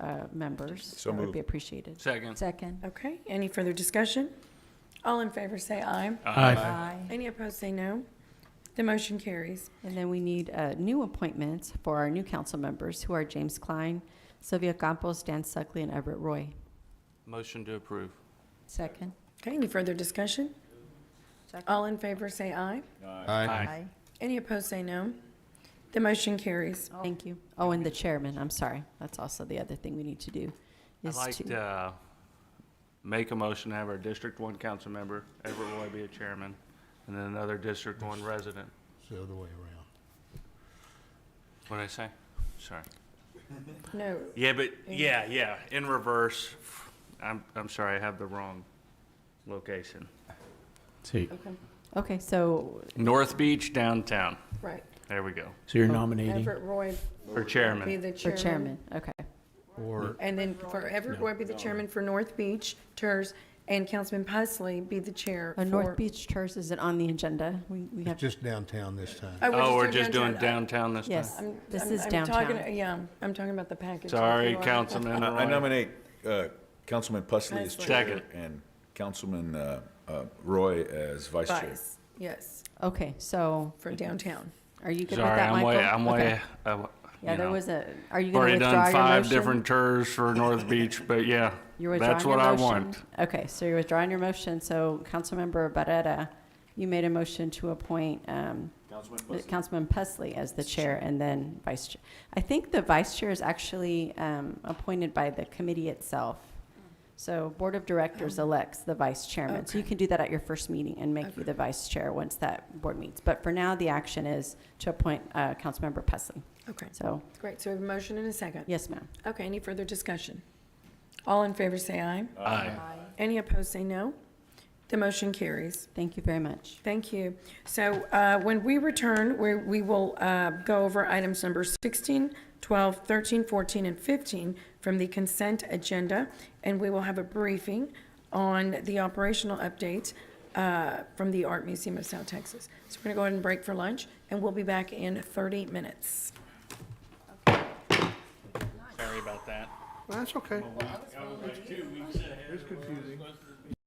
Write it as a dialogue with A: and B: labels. A: uh, members.
B: So
A: That would
B: moved.
A: be appreciated.
C: Second.
D: Second.
E: Okay, any further discussion? All in favor say aye.
D: Aye.
E: Any opposed say no. The motion carries.
A: And then we need uh, new appointments for our new council members, who are James Klein, Sylvia Campos, Dan Suckley, and Everett Roy.
C: Motion to approve.
D: Second.
E: Okay, any further discussion? All in favor say aye.
B: Aye.
E: Any opposed say no. The motion carries.
A: Thank you. Oh, and the chairman, I'm sorry. That's also the other thing we need to do.
C: I'd
A: is
C: like
A: to-
C: to uh, make a motion to have our District One council member, Everett Roy, be a chairman, and then another District One resident.
F: It's the other way around.
C: What'd I say? Sorry.
E: No,
C: Yeah, but, yeah, yeah, in reverse. I'm, I'm sorry, I have the wrong location.
G: So,
E: okay,
A: Okay, so
C: North Beach downtown.
E: right.
C: There we go.
G: so you're nominating?
E: Everett Roy
C: For
E: be
C: chairman.
E: the
A: for chairman,
E: chairman.
A: okay. Uh,
F: Or
E: And then for Everett Roy be the chairman for North Beach TERS, and Councilman Pusley be the chair
A: Uh,
E: for.
A: North Beach Church, is it on the agenda? We we
F: it's
A: have,
F: just downtown this time.
C: Oh, we're just doing downtown this time.
A: yes,
E: I'm-
A: this
E: I'm-
A: is
E: I'm talking-
A: downtown.
E: Yeah, I'm talking about the package.
C: Sorry,
E: Everett Roy.
C: Councilman
B: I I
C: Roy.
B: nominate uh, Councilman Pusley as chair
C: Second.
B: and Councilman uh, uh, Roy as vice chair.
E: Vice, yes,
A: Okay, so
E: for downtown.
A: are you good with
C: Sorry,
A: that,
C: I'm
A: Michael?
C: way, I'm way,
A: Okay.
C: I w-
A: Yeah,
C: you
A: there
C: know.
A: was a, are you going to
C: Already
A: withdraw your
C: done
A: motion?
C: five different tours for North Beach, but yeah,
A: You're
C: that's
A: withdrawing
C: what I
A: your motion.
C: want.
A: Okay, so you're withdrawing your motion. So Councilmember Barrera, you made a motion to appoint um, Councilman Pusley as the chair and then vice chair. I think the vice chair is actually um, appointed by the committee itself. So Board of Directors elects the vice chairman. So you can do that at your first meeting and make you the vice chair once that board meets. But for now, the action is to appoint uh, Councilmember Pusley.
E: Okay,
A: So,
E: great, so we have a motion and a second.
A: yes, ma'am.
E: Okay, any further discussion? All in favor say aye.
C: Aye.
E: Any opposed say no. The motion carries.
A: Thank you very much.
E: Thank you. So uh, when we return, we we will uh, go over items number 16, 12, 13, 14, and 15 from the consent agenda, and we will have a briefing on the operational updates uh, from the Art Museum of South Texas. So we're going to go ahead and break for lunch, and we'll be back in 30 minutes.
C: Sorry about that.
F: That's okay.
C: That was like two weeks ahead.
F: It's confusing.